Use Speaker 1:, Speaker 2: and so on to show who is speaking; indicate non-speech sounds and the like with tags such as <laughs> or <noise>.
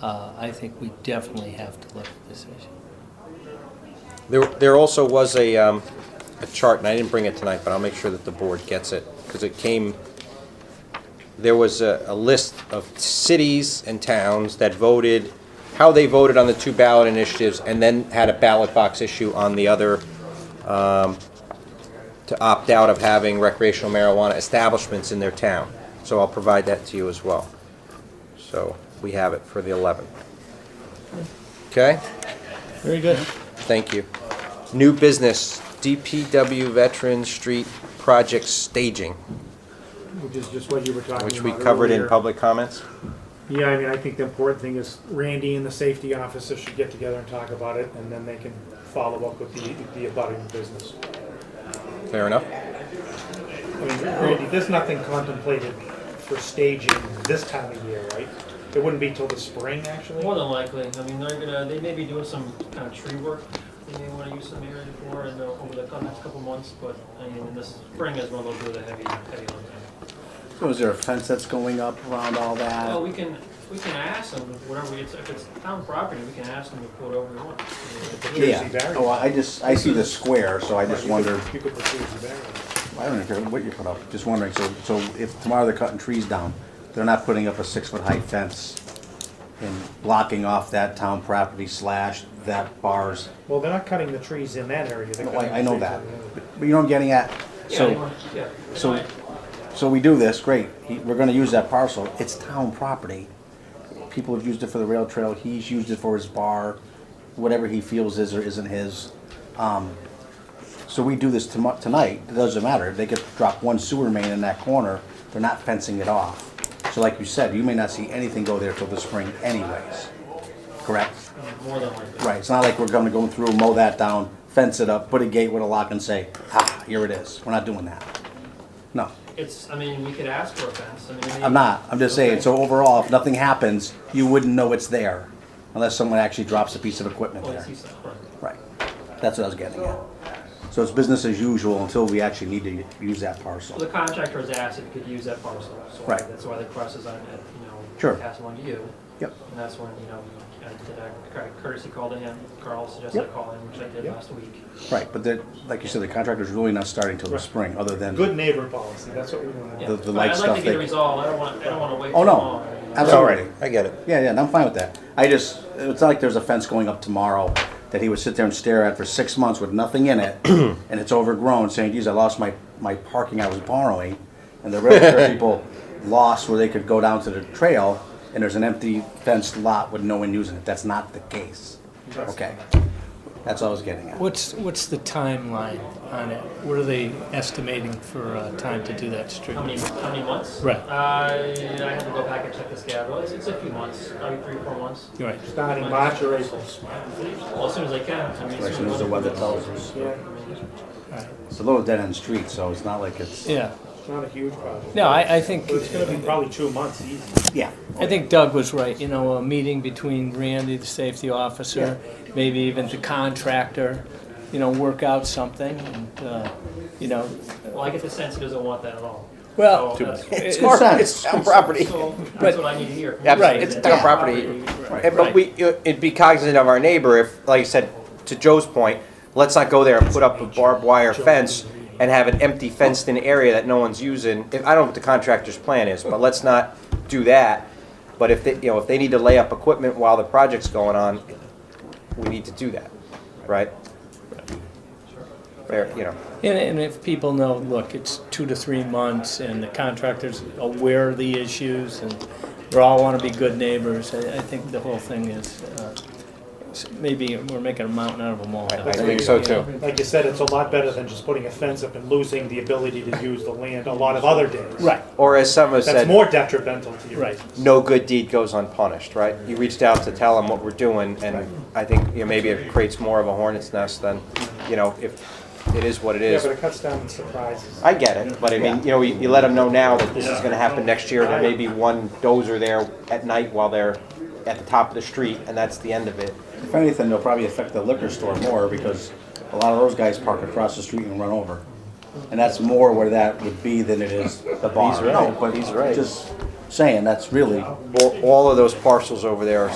Speaker 1: uh, I think we definitely have to look at this issue.
Speaker 2: There, there also was a, um, a chart, and I didn't bring it tonight, but I'll make sure that the board gets it, because it came, there was a, a list of cities and towns that voted, how they voted on the two ballot initiatives, and then had a ballot box issue on the other, um, to opt out of having recreational marijuana establishments in their town. So I'll provide that to you as well. So, we have it for the 11th. Okay?
Speaker 3: Very good.
Speaker 2: Thank you. New business, DPW Veteran Street Project Staging,
Speaker 4: which is just what you were talking about.
Speaker 2: which we covered in
Speaker 4: earlier.
Speaker 2: public comments.
Speaker 4: Yeah, I mean, I think the important thing is Randy and the safety officer should get together and talk about it, and then they can follow up with the, the abutting business.
Speaker 2: Fair enough?
Speaker 4: I mean, Randy, there's nothing contemplated for staging this time of year, right? It wouldn't be till the spring, actually?
Speaker 5: More than likely, I mean, they're gonna, they may be doing some kind of tree work they may wanna use some area for in the, uh, over the next couple months, but I mean, in this spring is when they'll do the heavy, heavy lifting.
Speaker 3: So is there a fence that's going up around all that?
Speaker 5: Well, we can, we can ask them, whatever, it's, if it's town property, we can ask them to put whatever we want. I mean,
Speaker 4: The
Speaker 3: Yeah.
Speaker 4: Jersey barrier.
Speaker 3: Oh, I just, I see the square, so I just
Speaker 4: You could-
Speaker 3: wondered,
Speaker 4: You could put Jersey barrier.
Speaker 3: I don't care what you put up, just wondering, so, so if tomorrow they're cutting trees down, they're not putting up a six-foot high fence and blocking off that town property slash that bars?
Speaker 4: Well, they're not cutting the trees in that area. they're
Speaker 3: No,
Speaker 4: cutting
Speaker 3: I, I
Speaker 4: the
Speaker 3: know
Speaker 4: trees
Speaker 3: that,
Speaker 4: on the other.
Speaker 3: but but you know what I'm getting at?
Speaker 5: Yeah, they
Speaker 3: So,
Speaker 5: want- yeah.
Speaker 3: so-
Speaker 5: Anyway,
Speaker 3: so we do this, great, He- we're gonna use that parcel, it's town property. People have used it for the rail trail, he's used it for his bar, whatever he feels is or isn't his. Um, So we do this tomo- tonight, it doesn't matter, they could drop one sewer main in that corner, they're not fencing it off. So like you said, you may not see anything go there till the spring anyways, correct?
Speaker 5: uh, More than likely.
Speaker 3: Right, it's not like we're gonna go through, mow that down, fence it up, put a gate with a lock and say, ah, here it is, we're not doing that. No,
Speaker 5: It's, I mean, we could ask for a fence, I mean. they-
Speaker 3: I'm not, I'm just saying,
Speaker 5: Okay.
Speaker 3: so overall, if nothing happens, you wouldn't know it's there unless someone actually drops a piece of equipment
Speaker 5: Well,
Speaker 3: there.
Speaker 5: it's east side, right.
Speaker 3: Right, that's what I was getting at. So it's business as usual until we actually need to use that
Speaker 5: Well, The
Speaker 3: parcel.
Speaker 5: contractor has asked if he could use that parcel, so
Speaker 3: Right.
Speaker 5: that's why the cross is on it, you know.
Speaker 3: Sure.
Speaker 5: Pass along to you.
Speaker 3: Yep,
Speaker 5: And that's when, you know, I did a courtesy call to him. Carl suggested I
Speaker 3: Yep.
Speaker 5: call him, which I did
Speaker 4: Yep.
Speaker 5: last week.
Speaker 3: right, but then, like you said, the contractor's really not starting till the spring, other than.
Speaker 4: Good neighbor policy, that's what we want to
Speaker 5: Yeah.
Speaker 4: do.
Speaker 3: The- the
Speaker 5: But
Speaker 3: light
Speaker 5: I'd
Speaker 3: stuff
Speaker 5: like to get
Speaker 3: that-
Speaker 5: it resolved. I don't want, I don't want to wait
Speaker 3: Oh,
Speaker 5: too
Speaker 3: no.
Speaker 5: long.
Speaker 3: Absolutely.
Speaker 2: All right, I get it.
Speaker 3: Yeah, yeah, and I'm fine with that. I just, it's not like there's a fence going up tomorrow that he would sit there and stare at for six months with nothing in it, and it's overgrown, saying, geez, I lost my, my parking I was borrowing, and the railroad people lost where they could go down to the trail, and there's an empty fenced lot with no one using it. That's not the case. Okay. That's all I was getting at.
Speaker 6: What's, what's the timeline on it? What are they estimating for uh, time to do that street?
Speaker 5: How many, how many months?
Speaker 6: Right.
Speaker 5: Uh, I have to go back and check the schedule. It's, it's a few months, probably three, four months.
Speaker 6: You're right.
Speaker 4: Starting March or April.
Speaker 5: Well, as soon as I can. I mean,
Speaker 3: As soon as the weather tells us.
Speaker 4: Yeah,
Speaker 3: It's a little dead-end street, so it's not like it's,
Speaker 6: Yeah.
Speaker 4: it's not a huge problem.
Speaker 6: No, I, I think,
Speaker 4: But it's gonna be probably two months easy.
Speaker 3: yeah.
Speaker 6: I think Doug was right. You know, a meeting between Randy, the safety officer, maybe even the contractor, you know, work out something and, uh, you know.
Speaker 5: Well, I get the sense he doesn't want that at all.
Speaker 6: Well,
Speaker 5: So,
Speaker 6: uh,
Speaker 5: uh,
Speaker 6: it's-
Speaker 3: Makes sense.
Speaker 2: It's town property.
Speaker 3: <laughs>
Speaker 5: So that's what I need to hear.
Speaker 2: Yeah,
Speaker 6: Right.
Speaker 2: It's town property.
Speaker 5: Right.
Speaker 2: And- But we, it'd be cognizant of our neighbor if, like I said, to Joe's point, let's not go there and put up a barbed wire fence and have an empty fenced-in area that no one's using. If- I don't know what the contractor's plan is, but let's not do that. But if they, you know, if they need to lay up equipment while the project's going on, we need to do that, right? Fair, you know.
Speaker 6: And, and if people know, look, it's two to three months and the contractor's aware of the issues and we all want to be good neighbors, I, I think the whole thing is, uh, s- maybe we're making a mountain out of a molehill.
Speaker 2: I think so too.
Speaker 4: Like you said, it's a lot better than just putting a fence up and losing the ability to use the land a lot of other days.
Speaker 6: Right,
Speaker 2: Or as some have
Speaker 4: That's
Speaker 2: said,
Speaker 4: more detrimental to you.
Speaker 6: right.
Speaker 2: no good deed goes unpunished, right? You reached out to tell them what we're doing, and I think, you know, maybe it creates more of a hornet's nest than, you know, if it is what it
Speaker 4: Yeah,
Speaker 2: is.
Speaker 4: but it cuts down on surprises.
Speaker 2: I get it, but I mean, you know, you, you let them know now that this is gonna happen next year, there may be one dozer there at night while they're at the top of the street, and that's the end of it.
Speaker 3: If anything, they'll probably affect the liquor store more because a lot of those guys park across the street and run over. And that's more where that would be than it is the bar.
Speaker 2: He's right.
Speaker 3: No, but
Speaker 2: He's right.
Speaker 3: Just saying, that's really
Speaker 2: All, all of those parcels over there are